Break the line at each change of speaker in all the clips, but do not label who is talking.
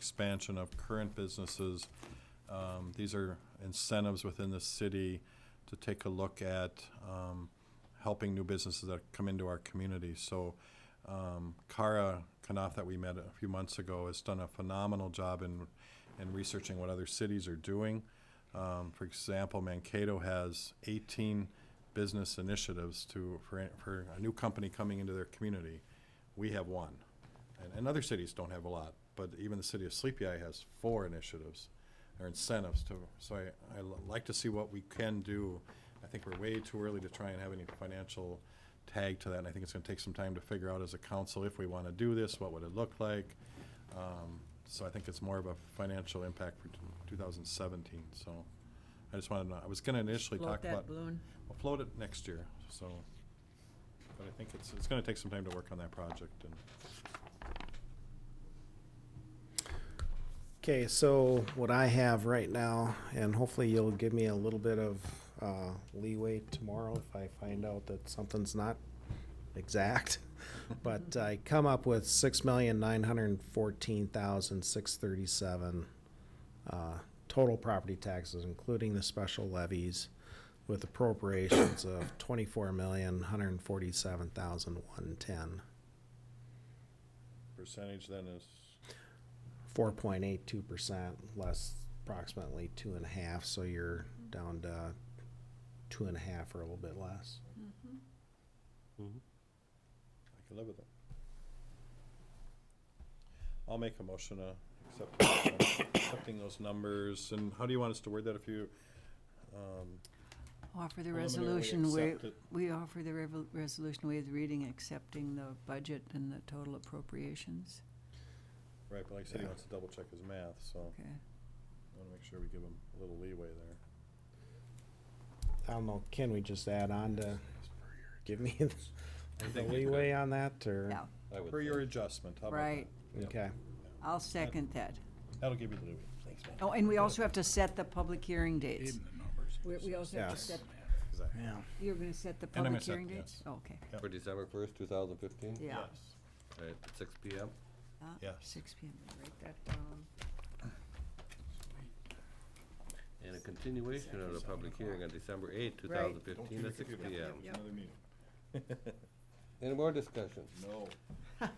expansion of current businesses. Um, These are incentives within the city to take a look at um, helping new businesses that come into our community. So um, Kara Knopf that we met a few months ago has done a phenomenal job in, in researching what other cities are doing. Um, For example, Mankato has 18 business initiatives to, for, for a new company coming into their community. We have one. And, and other cities don't have a lot, but even the city of Sleepy Eye has four initiatives or incentives to, so I, I li- like to see what we can do. I think we're way too early to try and have any financial tag to that, and I think it's gonna take some time to figure out as a council if we wanna do this, what would it look like? Um, So I think it's more of a financial impact for two thousand seventeen, so I just wanted to, know. I was gonna initially talk
Float
about.
that balloon.
We'll float it next year, so, but I think it's, it's gonna take some time to work on that project and.
Okay, so what I have right now, and hopefully you'll give me a little bit of uh, leeway tomorrow if I find out that something's not exact. But I come up with six million nine hundred and fourteen thousand six thirty-seven uh, total property taxes, including the special levies, with appropriations of twenty-four million one hundred and forty-seven thousand one ten.
Percentage then is,
four point eight two percent less approximately two and a half, so you're down to two and a half or a little bit less.
I can live with it. I'll make a motion to accept, accepting those numbers, and how do you want us to word that if you, um,
Offer the
preliminarily
resolution, we,
accept it?
we offer the revo- resolution waive the reading, accepting the budget and the total appropriations.
Right, but like I said, he
Yeah.
wants to double check his math, so I
Okay.
wanna make sure we give him a little leeway there.
I don't know, can we just add on to, give me the
think you could.
leeway on that, or?
Yeah,
For your adjustment, how about that?
right.
Yep.
Okay,
I'll second that.
That'll give you the leeway. Thanks, man.
Oh, and we also have to set the public hearing dates. We, we also have to
Yes.
set,
Exactly.
yeah.
you're gonna set the
I'm gonna
public
set-
hearing dates?
yes.
Oh, Okay,
Yep.
For December first, two thousand fifteen?
yeah.
Yes.
At six P M?
Ah,
Yes.
Six P M, write that down.
And a continuation of the public hearing on December eighth, two thousand fifteen, at six P M.
Yep.
Another meeting.
Any more discussion?
No.
All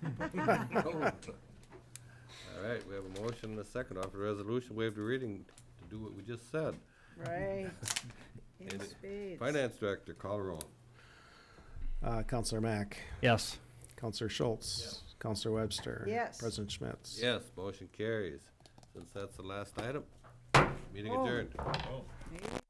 right, we have a motion and a second. Offer the resolution, waive the reading to do what we just said.
Right. In
And
spades.
Finance Director, call roll.
Uh, Counselor Mack,
Yes.
Counselor Schultz, Counselor Webster.
Yes.
President Schmitz.
Yes, motion carries. Since that's the last item, meeting
Oh.
adjourned.
Maybe.